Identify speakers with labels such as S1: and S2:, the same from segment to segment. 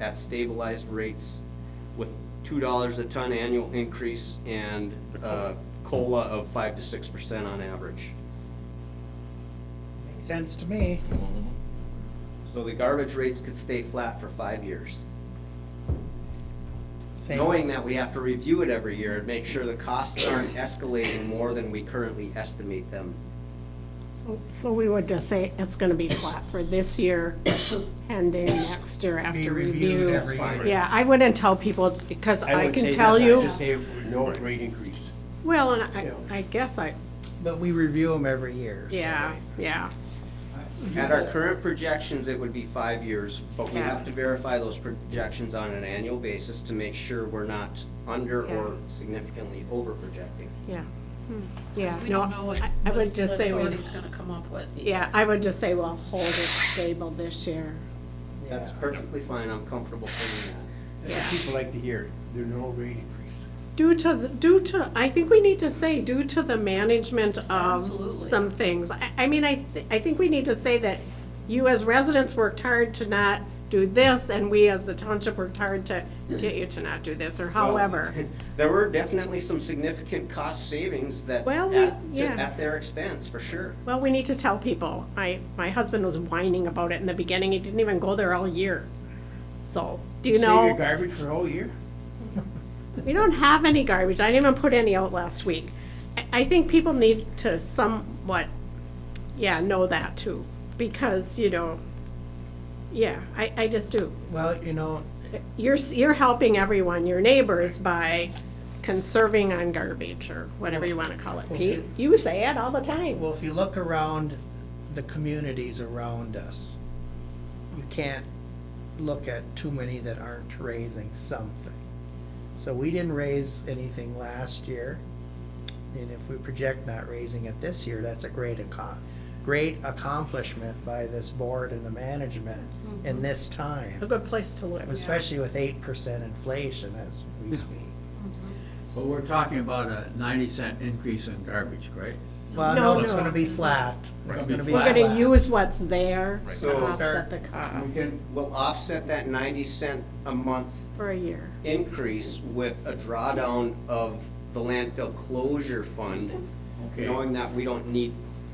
S1: at stabilized rates with two dollars a ton annual increase and uh, COLA of five to six percent on average.
S2: Makes sense to me.
S1: So the garbage rates could stay flat for five years.
S2: Same.
S1: Knowing that we have to review it every year and make sure the costs aren't escalating more than we currently estimate them.
S3: So we would just say it's gonna be flat for this year, pending next year
S2: Be
S3: after
S2: reviewed
S3: review.
S2: every
S1: Fine.
S2: year.
S3: Yeah, I wouldn't tell people, because I
S4: would say
S3: can
S4: that,
S3: tell
S4: I'd
S3: you,
S4: just say no rate increase.
S3: well, and I,
S4: Yeah.
S3: I guess I,
S2: But we review them every year. so-
S3: yeah, yeah.
S1: At our current projections, it would be five years, but we have to verify those projections on an annual basis to make sure we're not under or
S3: Yeah.
S1: significantly over projecting.
S3: Yeah, Hmm, yeah.
S5: We
S3: no,
S5: don't know what's,
S3: I- I
S5: what
S3: would
S5: the
S3: just say, we-
S5: authority's gonna come up with.
S3: yeah, I would just say, well, hold it stable this year.
S1: That's perfectly fine, I'm comfortable saying that.
S4: That's what People like to hear, there's no rate increase.
S3: Due to, the- due to, I think we need to say due to the management of
S5: Absolutely.
S3: some things. I, I mean, I, thi- I think we need to say that you as residents worked hard to not do this, and we as the township worked hard to get you to not do this, or however.
S1: Um, There were definitely some significant cost savings that's
S3: Well, we-
S1: at, to-
S3: yeah.
S1: at their expense, for sure.
S3: Well, we need to tell people. I, my husband was whining about it in the beginning. He didn't even go there all year. So, do you know?
S4: Save your garbage for a whole year?
S3: We don't have any garbage. I didn't even put any out last week. I- I think people need to somewhat, yeah, know that too, because, you know, yeah, I, I just do.
S2: Well, you know,
S3: You're, s- you're helping everyone, your neighbors, by conserving on garbage or whatever you want to call it, Pete. You say it all the time.
S2: well, if you look around the communities around us, you can't look at too many that aren't raising something. So we didn't raise anything last year. And if we project not raising it this year, that's a great accom, great accomplishment by this board and the management in this time.
S3: A good place to live.
S2: especially with eight percent inflation as we speak.
S6: But we're talking about a ninety cent increase in garbage, correct?
S2: Well,
S3: No,
S2: no, it's
S3: no.
S2: gonna be flat.
S6: Right.
S2: It's gonna be
S3: We're
S2: flat.
S3: going to use what's there to
S1: So-
S3: offset the cost
S1: We can, we'll offset that ninety cent a month
S3: for a year.
S1: increase with a drawdown of the landfill closure fund,
S6: Okay.
S1: knowing that we don't need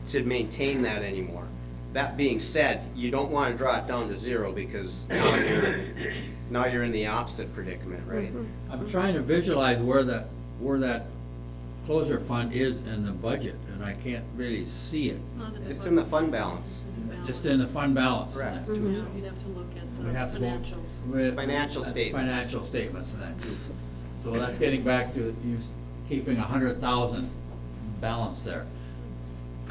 S1: to maintain that anymore. That being said, you don't wanna draw it down to zero because now you're, now you're in the opposite predicament, right?
S3: Mm-hmm.
S6: I'm trying to visualize where that, where that closure fund is in the budget, and I can't really see it.
S1: It's in the fund balance.
S6: Just in the fund balance. and that
S1: Correct.
S6: too,
S5: Yeah,
S6: so
S5: you'd have to look at the
S6: we have to go
S5: financials.
S6: with-
S1: Financial
S6: uh,
S1: statements.
S6: Financial statements and that too. So that's getting back to you s- keeping a hundred thousand balance there.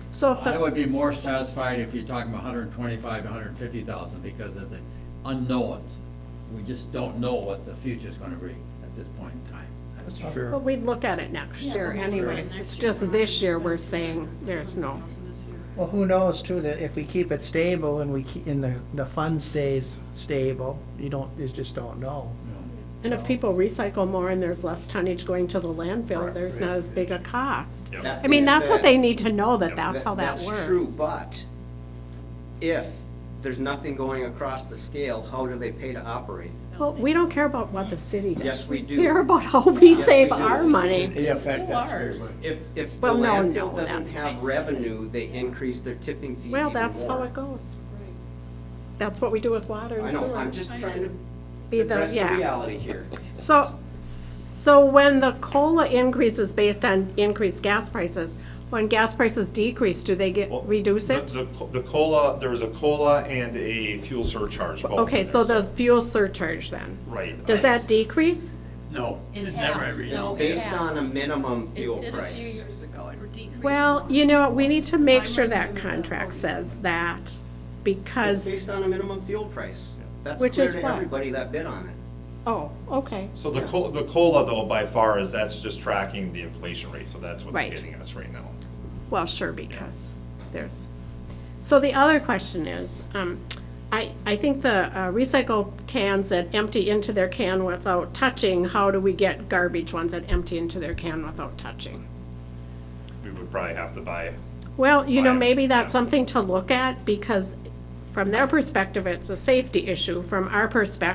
S3: So if the.
S6: I would be more satisfied if you're talking about hundred and twenty-five to hundred and fifty thousand because of the unknowns. We just don't know what the future's gonna be at this point in time. That's
S2: Sure.
S3: But we'd look at it next
S5: Yeah,
S3: year
S5: we'll look at it
S3: anyways,
S5: next
S3: it's
S5: year.
S3: just this year we're saying there's no.
S5: This year.
S2: Well, who knows too, that if we keep it stable and we, keep- and the, the fund stays stable, you don't, you just don't know.
S3: And if people recycle more and there's less tonnage going to the landfill, there's not as big a cost.
S1: That
S3: I mean,
S1: being
S3: that's what
S1: said-
S3: they need to know, that
S1: That-
S3: that's how that
S1: That's true,
S3: works.
S1: but if there's nothing going across the scale, how do they pay to operate?
S3: Well, we don't care about what the city does.
S1: Yes, we do.
S3: care about how we
S1: we
S3: save
S1: do.
S3: our money.
S4: In effect,
S5: still
S4: that's very
S5: ours.
S4: much.
S1: If, if the
S3: Well, no,
S1: landfill
S3: no,
S1: doesn't
S3: that's
S1: have
S3: nice.
S1: revenue, they increase their tipping fees even
S3: Well, that's how
S1: more.
S3: it goes.
S5: Right.
S3: That's what we do with water
S1: I
S3: and
S1: know,
S3: sewer.
S1: I'm just
S5: I
S1: trying
S5: know.
S3: Be
S1: to
S3: the-
S1: address the
S3: yeah.
S1: reality here.
S3: So, so when the COLA increase is based on increased gas prices, when gas prices decrease, do they get,
S7: Well,
S3: reduce
S7: the-
S3: it?
S7: The, co- the COLA, there was a COLA and a fuel surcharge both.
S3: Okay, so the fuel surcharge then,
S7: Right.
S3: does that decrease?
S6: No,
S5: It has.
S6: it never every.
S1: It's
S5: No, it
S1: based
S5: has.
S1: on a minimum
S5: It
S1: fuel
S5: did a few
S1: price.
S5: years ago, it decreased.
S3: Well, you know, we need to make sure that
S5: Because I'm
S3: contract
S5: reviewing
S3: says that,
S1: It's
S3: because,
S1: based on a minimum fuel price. That's
S3: Which
S1: clear
S3: is
S1: to
S3: what?
S1: everybody that bid on it.
S3: oh, okay.
S7: So the COLA, the COLA though, by far, is that's just tracking the inflation rate, so that's what's
S3: Right.
S7: hitting us right now.
S3: Well, sure, because there's, so the other question is, um, I, I think the uh, recycled cans that empty into their can without touching, how do we get garbage ones that empty into their can without touching?
S7: We would probably have to buy,
S3: Well, you know,
S7: Right,
S3: maybe that's
S7: yeah.
S3: something to look at, because from their perspective, it's a safety issue, from our perspective,